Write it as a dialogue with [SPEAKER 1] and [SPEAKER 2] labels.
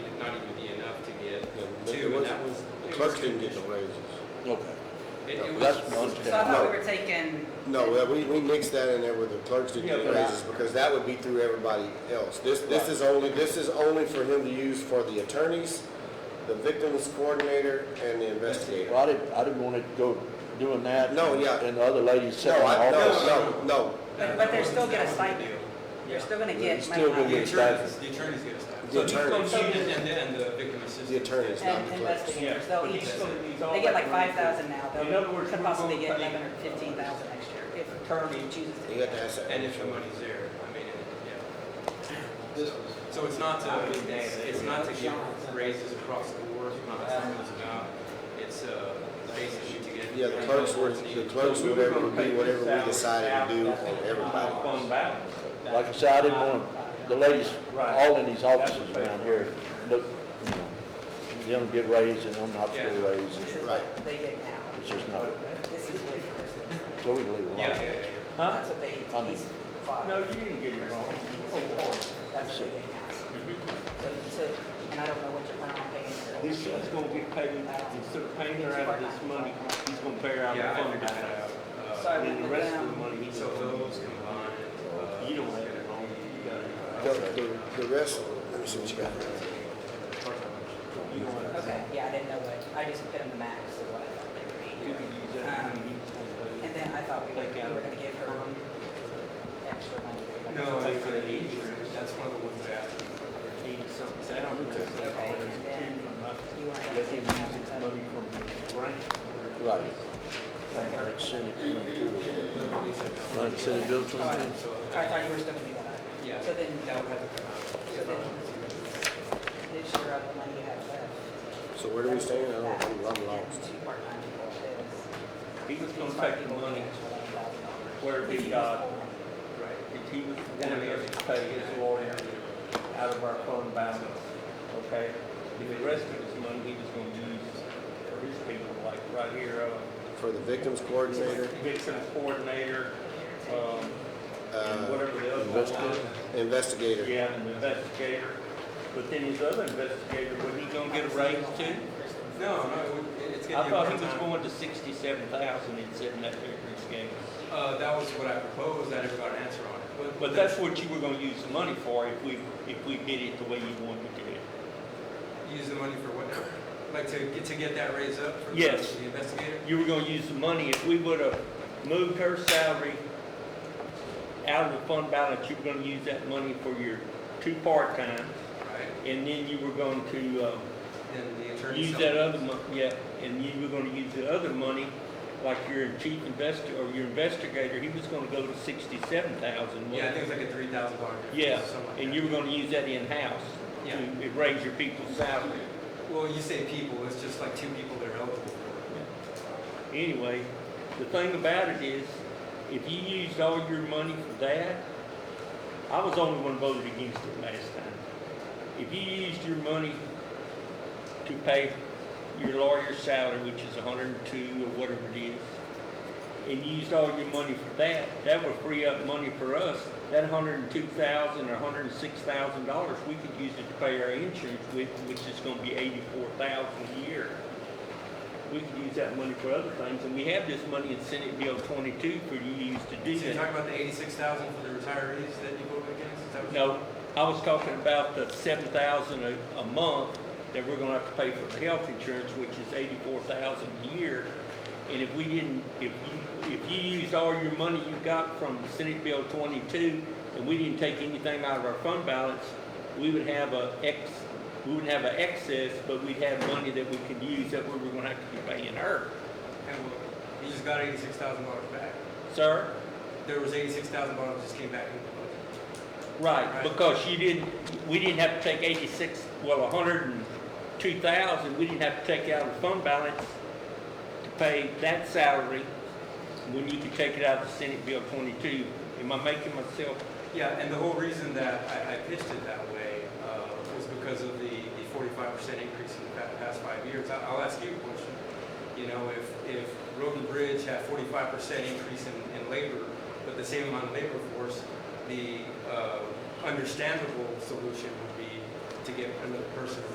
[SPEAKER 1] Clerk didn't get the raises.
[SPEAKER 2] Okay.
[SPEAKER 3] It- it
[SPEAKER 2] That's
[SPEAKER 3] was-
[SPEAKER 2] one
[SPEAKER 4] So I
[SPEAKER 2] thing.
[SPEAKER 4] thought we were taking.
[SPEAKER 1] No, that- we, we mixed that in there with the clerks didn't get the raises because that would be through everybody else. This, this is only, this is only for him to use for the attorneys, the victims coordinator, and the investigator.
[SPEAKER 2] Well, I didn't, I didn't want to go doing that.
[SPEAKER 1] No, yeah.
[SPEAKER 2] And the other ladies
[SPEAKER 1] No,
[SPEAKER 2] sitting in
[SPEAKER 1] I,
[SPEAKER 2] the office.
[SPEAKER 1] no, no, no.
[SPEAKER 4] But, but they're still gonna stipend,
[SPEAKER 3] Yeah.
[SPEAKER 4] they're still gonna
[SPEAKER 2] They're
[SPEAKER 4] get money
[SPEAKER 2] still
[SPEAKER 4] out
[SPEAKER 2] gonna
[SPEAKER 4] of
[SPEAKER 3] The
[SPEAKER 4] it.
[SPEAKER 2] get-
[SPEAKER 3] attorneys, the attorneys get a stipend.
[SPEAKER 1] The
[SPEAKER 3] So each
[SPEAKER 1] attorneys.
[SPEAKER 3] code unit and then the victim assistance.
[SPEAKER 1] The attorneys.
[SPEAKER 3] Yeah.
[SPEAKER 4] And investigators, they'll
[SPEAKER 5] But
[SPEAKER 4] each,
[SPEAKER 5] he's gonna use all
[SPEAKER 4] they get
[SPEAKER 5] that
[SPEAKER 4] like
[SPEAKER 5] money.
[SPEAKER 4] five thousand now,
[SPEAKER 5] In other
[SPEAKER 4] they'll
[SPEAKER 5] words,
[SPEAKER 4] could
[SPEAKER 5] we're
[SPEAKER 4] possibly
[SPEAKER 5] gonna
[SPEAKER 4] get
[SPEAKER 5] pay-
[SPEAKER 4] eleven or fifteen thousand next year, if
[SPEAKER 5] Attorney.
[SPEAKER 4] attorney chooses to.
[SPEAKER 1] You got to ask that.
[SPEAKER 3] And if the money's there, I mean, it- yeah.
[SPEAKER 6] This was,
[SPEAKER 3] So it's not to, it's, it's not to give raises across the board, it's not something it's about, it's, uh, basically to get.
[SPEAKER 1] Yeah, the clerks were, the clerks, whatever would be, whatever we decided to do on everybody.
[SPEAKER 5] Fund balance.
[SPEAKER 2] Like I said, I didn't want the ladies, all in these offices around here, look, you know, them get raised and them not get
[SPEAKER 3] Yeah.
[SPEAKER 2] raised.
[SPEAKER 4] This is
[SPEAKER 1] Right.
[SPEAKER 4] what they get now,
[SPEAKER 2] It's just not,
[SPEAKER 4] this is what,
[SPEAKER 2] so we leave it alone.
[SPEAKER 3] Yeah, yeah, yeah, yeah.
[SPEAKER 5] Huh?
[SPEAKER 4] that's what they,
[SPEAKER 2] I mean-
[SPEAKER 4] he's five.
[SPEAKER 5] No, you didn't get it wrong.
[SPEAKER 4] That's what they get now. So, so- and I don't know what you're planning on paying.
[SPEAKER 5] This, he's gonna get paid, instead of paying her out of this money, he's gonna pay her out
[SPEAKER 3] Yeah,
[SPEAKER 5] of
[SPEAKER 3] I
[SPEAKER 5] fund
[SPEAKER 3] figured that out.
[SPEAKER 5] balance.
[SPEAKER 3] Uh,
[SPEAKER 4] So-
[SPEAKER 5] And then the rest of the money, he's
[SPEAKER 3] So
[SPEAKER 5] gonna,
[SPEAKER 3] those combined. uh,
[SPEAKER 5] you don't have it wrong, you got it.
[SPEAKER 1] The, the- the rest, let me see what you got.
[SPEAKER 4] Okay, yeah, I didn't know what, I just put in the max of what I thought they were
[SPEAKER 5] You
[SPEAKER 4] eating.
[SPEAKER 5] can use that money.
[SPEAKER 4] And then I thought we were, we were gonna give her extra money.
[SPEAKER 3] No, I think for the age group, that's one of the ones I asked them for.
[SPEAKER 5] Eighty something, so I don't know.
[SPEAKER 4] Okay, and then you weren't gonna give me
[SPEAKER 5] That's
[SPEAKER 4] that
[SPEAKER 5] money
[SPEAKER 4] money.
[SPEAKER 5] from the grant.
[SPEAKER 2] Right. Like Senate, you know, like Senate Bill
[SPEAKER 4] So I
[SPEAKER 2] 22.
[SPEAKER 4] I thought you were still gonna do that.
[SPEAKER 3] Yeah.
[SPEAKER 4] So then,
[SPEAKER 3] That would have to come out.
[SPEAKER 4] so then, this year of the money you have left.
[SPEAKER 1] So where do we stand? I don't, I'm- I'm
[SPEAKER 4] That's
[SPEAKER 1] lost.
[SPEAKER 4] two part-time people, is.
[SPEAKER 5] He was gonna take the money where he got, if he was one of us to pay his lawyer out of our fund balance, okay? If the rest of his money, he was gonna use for his people, like right here, uh,
[SPEAKER 1] For the victims coordinator,
[SPEAKER 5] victim coordinator, um, and
[SPEAKER 1] uh,
[SPEAKER 5] whatever the other one was.
[SPEAKER 1] investigator.
[SPEAKER 5] Yeah, and investigator, but then his other investigator, was he gonna get a raise too?
[SPEAKER 3] No, no, it would- it- it's gonna
[SPEAKER 5] I
[SPEAKER 3] be. a
[SPEAKER 5] thought he
[SPEAKER 3] part-time.
[SPEAKER 5] was going to sixty-seven thousand and sitting that there for his game.
[SPEAKER 3] Uh, that was what I proposed, I never got an answer on it. But-
[SPEAKER 5] But that's what you were gonna use the money for if we, if we did it the way you wanted to do it.
[SPEAKER 3] Use the money for what now? Like to get, to get that raise up for the
[SPEAKER 5] Yes.
[SPEAKER 3] the investigator?
[SPEAKER 5] You were gonna use the money, if we would've moved her salary out of the fund balance, you were gonna use that money for your two part-time,
[SPEAKER 3] Right,
[SPEAKER 5] and then you were going to, uh,
[SPEAKER 3] then the attorney.
[SPEAKER 5] use that other mon, yeah, and you were gonna use the other money, like your chief investor, or your investigator, he was gonna go to sixty-seven thousand.
[SPEAKER 3] Yeah, I think it's like a three thousand dollar difference.
[SPEAKER 5] Yeah,
[SPEAKER 3] something like
[SPEAKER 5] and
[SPEAKER 3] that.
[SPEAKER 5] you were gonna use that in-house
[SPEAKER 3] Yeah.
[SPEAKER 5] to raise your people's salary.
[SPEAKER 3] Well, you say people, it's just like two people that are eligible for it.
[SPEAKER 5] Anyway, the thing about it is, if you used all your money for that, I was the only one voted against it last time. If you used your money to pay your lawyer's salary, which is hundred and two or whatever it is, and you used all your money for that, that would free up money for us. That hundred and two thousand or hundred and six thousand dollars, we could use it to pay our insurance with, which is gonna be eighty-four thousand a year. We could use that money for other things, and we have this money in Senate Bill twenty-two for you to use to do
[SPEAKER 3] So
[SPEAKER 5] that.
[SPEAKER 3] you're talking about the eighty-six thousand for the retirees that you voted against? Is that what you-
[SPEAKER 5] No, I was talking about the seven thousand a, a month that we're gonna have to pay for health insurance, which is eighty-four thousand a year. And if we didn't, if you, if you used all your money you got from Senate Bill twenty-two, and we didn't take anything out of our fund balance, we would have a ex, we wouldn't have an excess, but we'd have money that we could use that we were gonna have to be paying her.
[SPEAKER 3] And well, you just got eighty-six thousand dollars back.
[SPEAKER 5] Sir?
[SPEAKER 3] There was eighty-six thousand dollars that just came back into the budget.
[SPEAKER 5] Right,
[SPEAKER 3] Right.
[SPEAKER 5] because you didn't, we didn't have to take eighty-six, well, hundred and two thousand, we didn't have to take out of the fund balance to pay that salary, when you could take it out of the Senate Bill twenty-two. Am I making myself,
[SPEAKER 3] Yeah, and the whole reason that I, I pitched it that way uh, was because of the the forty-five percent increase in the pa- past five years. I- I'll ask you a question. You know, if, if Road and Bridge had forty-five percent increase in, in labor, but the same amount of labor force, the uh, understandable solution would be to get another person